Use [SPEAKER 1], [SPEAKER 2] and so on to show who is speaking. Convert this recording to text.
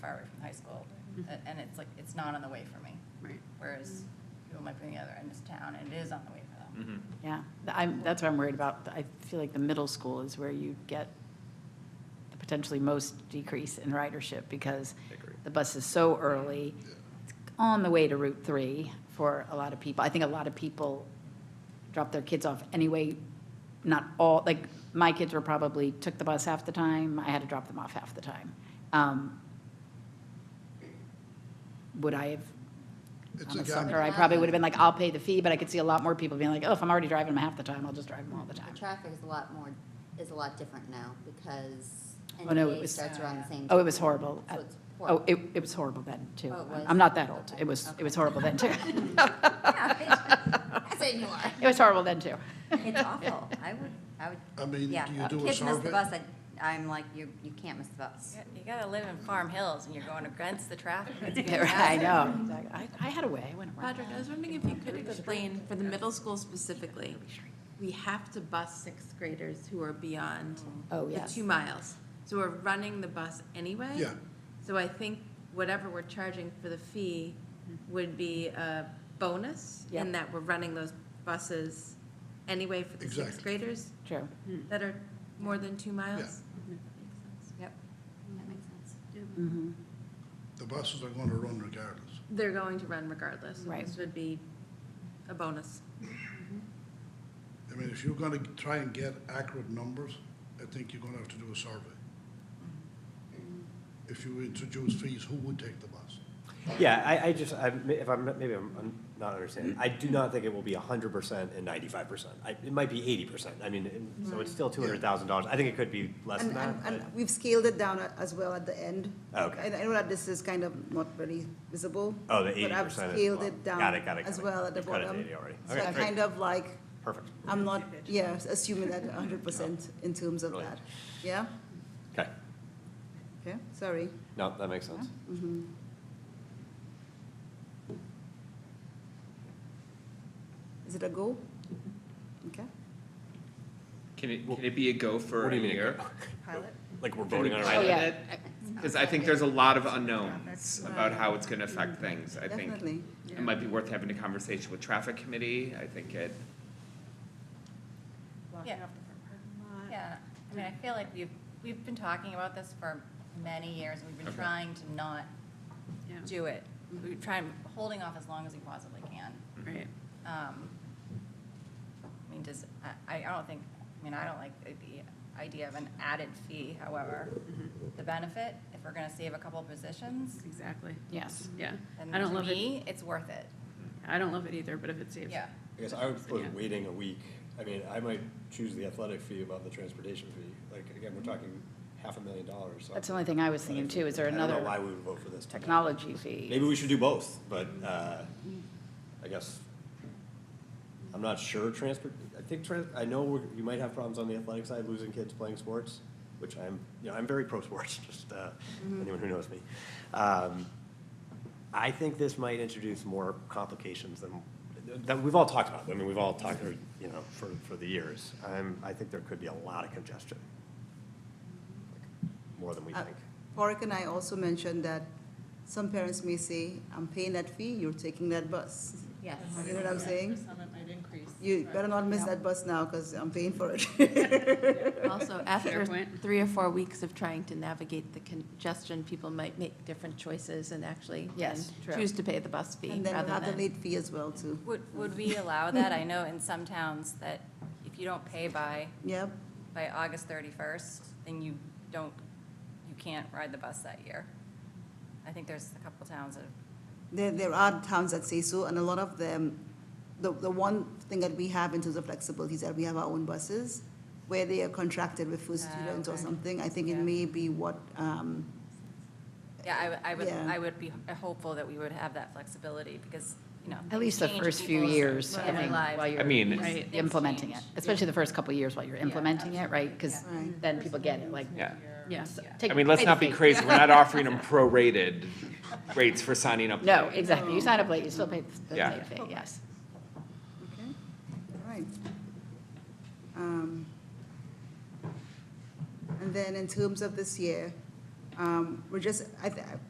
[SPEAKER 1] far away from high school, a- and it's like, it's not on the way for me.
[SPEAKER 2] Right.
[SPEAKER 1] Whereas people might be on the other end of town, and it is on the way for them.
[SPEAKER 2] Yeah, Th- I'm, that's what I'm worried about. I feel like the middle school is where you get the potentially most decrease in ridership because
[SPEAKER 3] Agree.
[SPEAKER 2] the bus is so early. It's on the way to Route Three for a lot of people. I think a lot of people drop their kids off anyway. Not all, like, my kids were probably, took the bus half the time. I had to drop them off half the time. Um, Would I have
[SPEAKER 4] It's
[SPEAKER 2] I'm
[SPEAKER 4] a
[SPEAKER 2] a
[SPEAKER 4] gap.
[SPEAKER 2] sucker. I probably would have been like, I'll pay the fee, but I could see a lot more people being like, oh, if I'm already driving them half the time, I'll just drive them all the time.
[SPEAKER 5] The traffic is a lot more, is a lot different now because
[SPEAKER 2] Oh, no, it
[SPEAKER 5] NBA
[SPEAKER 2] was-
[SPEAKER 5] starts around the same.
[SPEAKER 2] Oh, it
[SPEAKER 5] time.
[SPEAKER 2] was horrible.
[SPEAKER 5] So it's
[SPEAKER 2] Oh,
[SPEAKER 5] horrible.
[SPEAKER 2] it, it was horrible then, too.
[SPEAKER 5] Oh, it was?
[SPEAKER 2] I'm not that old.
[SPEAKER 5] Okay,
[SPEAKER 2] It was, it
[SPEAKER 5] okay.
[SPEAKER 2] was horrible then, too.
[SPEAKER 5] I say you are.
[SPEAKER 2] It was horrible then, too.
[SPEAKER 5] It's awful. I would, I would,
[SPEAKER 4] I mean,
[SPEAKER 5] yeah. uh,
[SPEAKER 4] do you do a
[SPEAKER 5] Kids miss the bus,
[SPEAKER 4] survey?
[SPEAKER 5] I, I'm like, you, you can't miss the bus.
[SPEAKER 1] You got- You gotta live in Farm Hills, and you're going against the traffic. It's
[SPEAKER 2] Yeah, right, I
[SPEAKER 1] fantastic.
[SPEAKER 2] know. Exactly. I, I had a way. I went around.
[SPEAKER 6] Patrick, I was wondering if you could explain, for the middle school specifically, we have to bus sixth graders who are beyond
[SPEAKER 5] uh,
[SPEAKER 2] Oh,
[SPEAKER 6] the
[SPEAKER 2] yes.
[SPEAKER 6] two miles. So we're running the bus anyway.
[SPEAKER 4] Yeah.
[SPEAKER 6] So I think whatever we're charging for the fee would be a bonus
[SPEAKER 2] Yep.
[SPEAKER 6] in that we're running those buses anyway for the sixth
[SPEAKER 4] Exactly.
[SPEAKER 6] graders
[SPEAKER 2] True.
[SPEAKER 6] that are more than two miles.
[SPEAKER 5] Yep, that makes sense. Mm-hmm.
[SPEAKER 2] Mhm.
[SPEAKER 4] The buses are gonna run regardless.
[SPEAKER 6] They're going to run regardless. so
[SPEAKER 2] Right.
[SPEAKER 6] This would be a bonus.
[SPEAKER 4] I mean, if you're gonna try and get accurate numbers, I think you're gonna have to do a survey.
[SPEAKER 5] Mm-hmm.
[SPEAKER 4] If you introduce fees, who would take the bus?
[SPEAKER 3] Yeah, I, I just, I, if I'm, maybe I'm, I'm not understanding, I do not think it will be hundred percent and ninety-five percent. I, it might be eighty percent, I mean, it- so it's still two hundred thousand dollars, I think it could be less than
[SPEAKER 7] And,
[SPEAKER 3] that,
[SPEAKER 7] and,
[SPEAKER 3] but, Oh,
[SPEAKER 7] and we've scaled it down a- as well at the end.
[SPEAKER 3] Okay.
[SPEAKER 7] And I know that this is kind of not very visible.
[SPEAKER 3] oh, the eighty
[SPEAKER 7] But
[SPEAKER 3] percent
[SPEAKER 7] I've
[SPEAKER 3] is.
[SPEAKER 7] scaled
[SPEAKER 3] well,
[SPEAKER 7] it down
[SPEAKER 3] Got it, got it, got
[SPEAKER 7] as
[SPEAKER 3] it.
[SPEAKER 7] well at the
[SPEAKER 3] You've cut it to
[SPEAKER 7] bottom.
[SPEAKER 3] 80 already.
[SPEAKER 7] So
[SPEAKER 3] Okay,
[SPEAKER 7] I
[SPEAKER 3] great.
[SPEAKER 7] kind of like,
[SPEAKER 3] Perfect,
[SPEAKER 7] I'm not, yeah, assuming that
[SPEAKER 3] Oh.
[SPEAKER 7] hundred percent in terms of
[SPEAKER 3] Brilliant.
[SPEAKER 7] that. Yeah?
[SPEAKER 3] okay,
[SPEAKER 7] Okay, sorry.
[SPEAKER 3] no, that makes sense.
[SPEAKER 7] Is it a go? Okay.
[SPEAKER 8] Can it, can it be a go for
[SPEAKER 3] What do
[SPEAKER 8] a
[SPEAKER 3] you mean a
[SPEAKER 8] year?
[SPEAKER 7] Pilot?
[SPEAKER 3] Like, we're voting on it right
[SPEAKER 2] Oh,
[SPEAKER 3] now?
[SPEAKER 2] yeah.
[SPEAKER 8] Because I think there's a lot of unknowns about how it's gonna affect things. I think
[SPEAKER 7] Definitely.
[SPEAKER 8] it might be worth having a conversation with traffic committee. I think it,
[SPEAKER 1] Yeah. Yeah, I mean, I feel like we've, we've been talking about this for many years, and we've been
[SPEAKER 8] Okay.
[SPEAKER 1] trying to not
[SPEAKER 2] Yeah.
[SPEAKER 1] do it. We're trying, holding off as long as we possibly can.
[SPEAKER 2] Right.
[SPEAKER 1] Um, I mean, does, I, I don't think, I mean, I don't like the- the idea of an added fee, however, the benefit, if we're gonna save a couple positions,
[SPEAKER 9] Exactly,
[SPEAKER 2] Yes.
[SPEAKER 9] yeah.
[SPEAKER 1] then
[SPEAKER 9] I don't
[SPEAKER 1] to
[SPEAKER 9] love it,
[SPEAKER 1] me, it's worth it.
[SPEAKER 9] I don't love it either, but if it saves.
[SPEAKER 1] Yeah,
[SPEAKER 3] I guess I would propose
[SPEAKER 9] Yeah.
[SPEAKER 3] waiting a week. I mean, I might choose the athletic fee above the transportation fee. Like, again, we're talking half a million dollars. so-
[SPEAKER 2] That's the only thing I was
[SPEAKER 3] But
[SPEAKER 2] thinking,
[SPEAKER 3] if-
[SPEAKER 2] too. Is there
[SPEAKER 3] I don't know why
[SPEAKER 2] another
[SPEAKER 3] we would vote for this. tonight.
[SPEAKER 2] technology fee?
[SPEAKER 3] Maybe we should do both, but, uh, I guess, I'm not sure transport, I think, trans- I know we're- you might have problems on the athletic side, losing kids playing sports, which I'm, you know, I'm very pro sports, just, uh, anyone who knows me. Um, I think this might introduce more complications than, that we've all talked about. I mean, we've all talked, or, you know, for, for the years. I'm, I think there could be a lot of congestion. More than we
[SPEAKER 7] Uh,
[SPEAKER 3] think.
[SPEAKER 7] Porrick and I also mentioned that some parents may say, I'm paying that fee, you're taking that bus.
[SPEAKER 5] Yes.
[SPEAKER 7] You know what I'm saying?
[SPEAKER 9] might increase.
[SPEAKER 7] You better not miss
[SPEAKER 2] Yeah.
[SPEAKER 7] that bus now, because I'm paying for it.
[SPEAKER 6] Also,
[SPEAKER 9] Fair
[SPEAKER 6] after
[SPEAKER 9] point.
[SPEAKER 6] three or four weeks of trying to navigate the congestion, people might make different choices and actually
[SPEAKER 2] Yes,
[SPEAKER 6] then
[SPEAKER 2] true.
[SPEAKER 6] choose to pay the bus fee
[SPEAKER 7] And then we'll
[SPEAKER 6] rather
[SPEAKER 7] have the
[SPEAKER 6] than.
[SPEAKER 7] late fee as well, too.
[SPEAKER 1] would, would we allow that? I know in some towns that if you don't pay by,
[SPEAKER 7] Yep.
[SPEAKER 1] by August thirty-first, then you don't, you can't ride the bus that year. I think there's a couple towns that,
[SPEAKER 7] There, there are towns that say so, and a lot of them, the, the one thing that we have in terms of flexibility is that we have our own buses, where they are contracted with first
[SPEAKER 1] Ah,
[SPEAKER 7] students or
[SPEAKER 1] okay.
[SPEAKER 7] something, I think it
[SPEAKER 1] Yeah.
[SPEAKER 7] may be what, um,
[SPEAKER 1] yeah, I, would- I would,
[SPEAKER 7] Yeah.
[SPEAKER 1] I would be hopeful that we would have that flexibility because, you know.
[SPEAKER 2] At
[SPEAKER 1] things
[SPEAKER 2] least the
[SPEAKER 1] change,
[SPEAKER 2] first few
[SPEAKER 1] people's-
[SPEAKER 2] years, I
[SPEAKER 1] their
[SPEAKER 2] think,
[SPEAKER 1] lives.
[SPEAKER 2] while
[SPEAKER 8] I
[SPEAKER 2] you're
[SPEAKER 8] mean,
[SPEAKER 1] Right.
[SPEAKER 2] just implementing it,
[SPEAKER 1] Things change.
[SPEAKER 2] especially the first couple of years while you're implementing it, right? Because
[SPEAKER 7] absolutely. Right.
[SPEAKER 2] then people get it, like.
[SPEAKER 8] yeah.
[SPEAKER 9] Yeah.
[SPEAKER 2] take-
[SPEAKER 8] I mean, let's
[SPEAKER 2] pay the
[SPEAKER 8] not be
[SPEAKER 2] fee.
[SPEAKER 8] crazy. We're not offering them prorated rates for signing up.
[SPEAKER 2] No,
[SPEAKER 8] late.
[SPEAKER 2] exactly. You sign up late, you still pay the
[SPEAKER 8] Yeah.
[SPEAKER 2] late fee, yes.
[SPEAKER 7] okay, all right. Um, And then in terms of this year, Um, We're just, I, th-